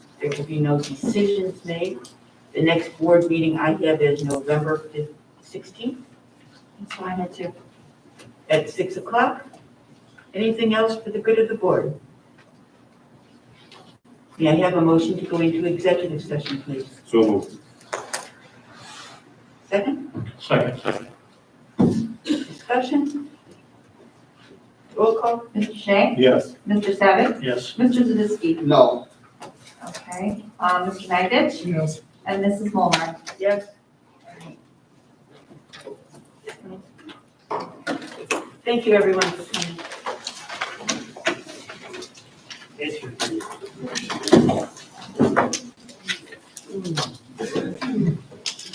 There will be no decisions made. The next board meeting I have is November sixteenth. So I had to. At six o'clock. Anything else for the good of the board? May I have a motion to go into executive session, please? So moved. Second, Second. discussion? Roll call? Mr. Shea? Yes. Mr. Savick? Yes. Mr. Zavisky? No. Okay, um, Mr. Magich? Yes. And Mrs. Molnar? Yes. Thank you, everyone, for coming.